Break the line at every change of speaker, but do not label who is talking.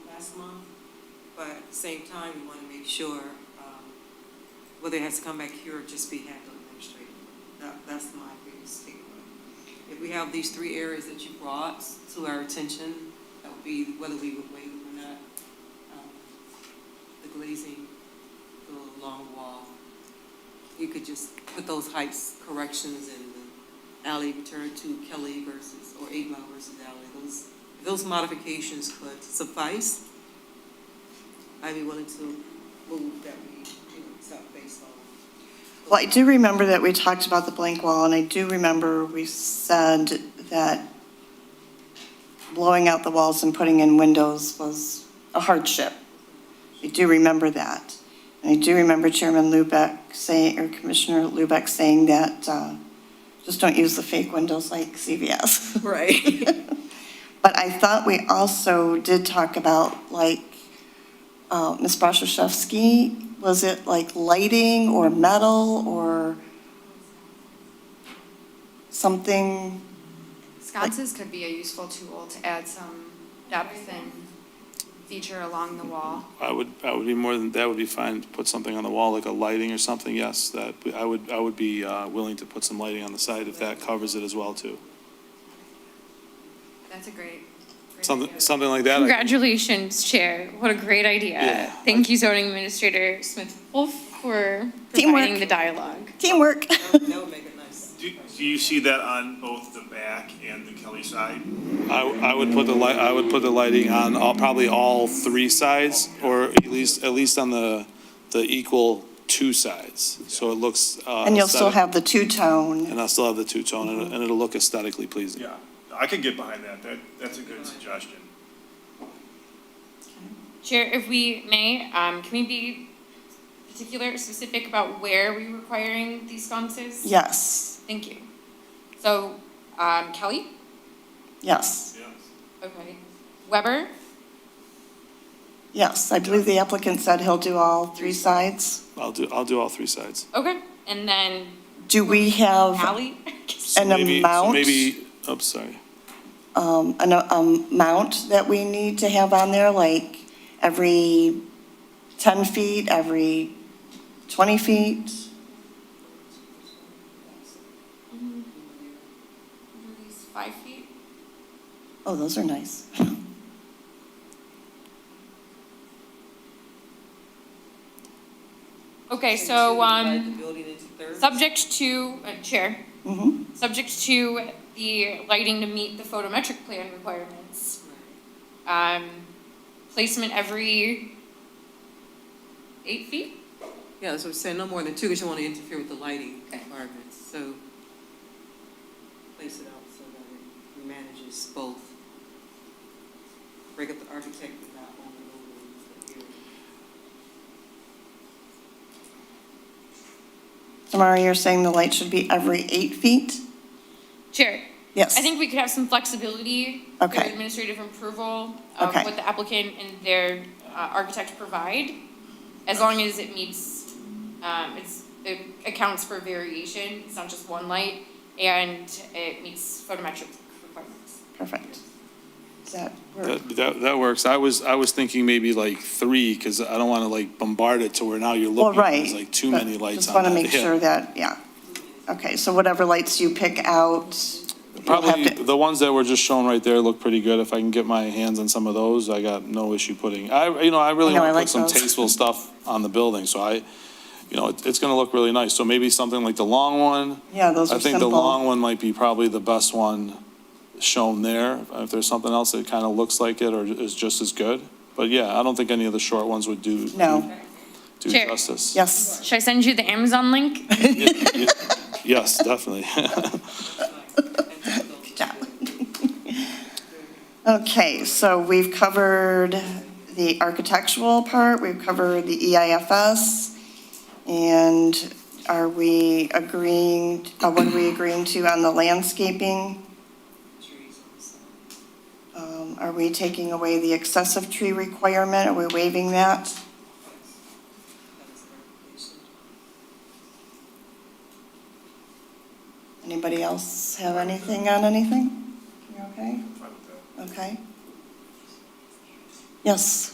last month, but at the same time, we want to make sure um, whether it has to come back here or just be handled administratively. That, that's my biggest takeaway. If we have these three areas that you brought to our attention, that would be whether we would waive them or not. Um, The glazing, the long wall, you could just put those heights corrections in the alley return to Kelly versus, or eight mile versus alley. Those, if those modifications could suffice. I'd be willing to move that we, you know, accept based on.
Well, I do remember that we talked about the blank wall, and I do remember we said that blowing out the walls and putting in windows was a hardship. I do remember that. And I do remember Chairman Lubeck saying, or Commissioner Lubeck saying that, uh, just don't use the fake windows like CVS.
Right.
But I thought we also did talk about, like, uh, Ms. Brashevsky, was it like lighting or metal or something?
Sconces could be a useful tool to add some depth and feature along the wall.
I would, I would be more than, that would be fine, to put something on the wall, like a lighting or something, yes, that, I would, I would be uh, willing to put some lighting on the side if that covers it as well, too.
That's a great, great
Something,
idea.
something like that. I-
Congratulations, Chair. What a great idea.
Yeah.
Thank you, zoning administrator Smith Wolf, for
Teamwork.
providing the dialogue.
Teamwork.
That would make it nice.
Do, do you see that on both the back and the Kelly side?
I, I would put the light, I would put the lighting on all, probably all three sides, or at least, at least on the, the equal two sides, so it looks. uh,
And you'll still
aesthetic.
have the two-tone.
And I'll still have the two-tone, and it'll- and it'll look aesthetically pleasing.
Yeah, I could get behind that. That, that's a good suggestion.
Chair, if we may, um, can we be particular, specific about where we are requiring these sconces?
Yes,
Thank you. So, um, Kelly?
yes,
Yes.
Okay. Weber?
yes. I believe the applicant said he'll do all three sides.
I'll do, I'll do all three sides.
Okay. And then
Do we have
Hallie?
So
An
maybe- so
amount?
Maybe, oh, sorry.
um, an um, amount that we need to have on there, like every 10 feet, every 20 feet?
Five feet?
Oh, those are nice.
Okay,
And
so,
two, divide
um,
The building into thirds.
subject to, uh, Chair,
Mhm.
subject to the lighting to meet the photometric plan requirements. Um, placement every eight feet?
Yeah, that's what I'm saying, no more than two, because you don't want to interfere with the lighting requirements, so place it out so that it manages both. Break up the architect without owning the building.
Tamara, you're saying the light should be every eight feet?
Chair,
Yes.
I think we could have some flexibility
Okay.
through administrative approval of
Okay.
what the applicant and their uh, architect provide, as long as it meets, um, it's, it accounts for variation, it's not just one light, and it meets photometric requirements.
Perfect. Does that work?
That, that, that works. I was, I was thinking maybe like three, because I don't want to like bombard it to where now you're
Well,
looking,
right.
there's like too
but
many lights
Just
on
want
that.
to make
Yeah.
sure that, yeah. Okay, so whatever lights you pick out, you'll have
Probably,
to-
the ones that were just shown right there look pretty good. If I can get my hands on some of those, I got no issue putting, I, you know, I really
I know, I
want to
like
put some
those.
tasteful stuff on the building, so I, you know, it- it's going to look really nice. So maybe something like the long one.
Yeah, those
I
are
think the
simple.
long one might be probably the best one shown there. If there's something else that kind of looks like it or is just as good. But yeah, I don't think any of the short ones would do,
No,
do
Chair.
justice.
yes.
Should I send you the Amazon link?
Yes, definitely.
Uh,
Good
job. Okay, so we've covered the architectural part, we've covered the E EIFS, and are we agreeing, uh, what are we agreeing to on the landscaping? Um, Are we taking away the excessive tree requirement? Are we waiving that? Anybody else have anything on anything? You okay?
Fine with that.
Okay. Yes,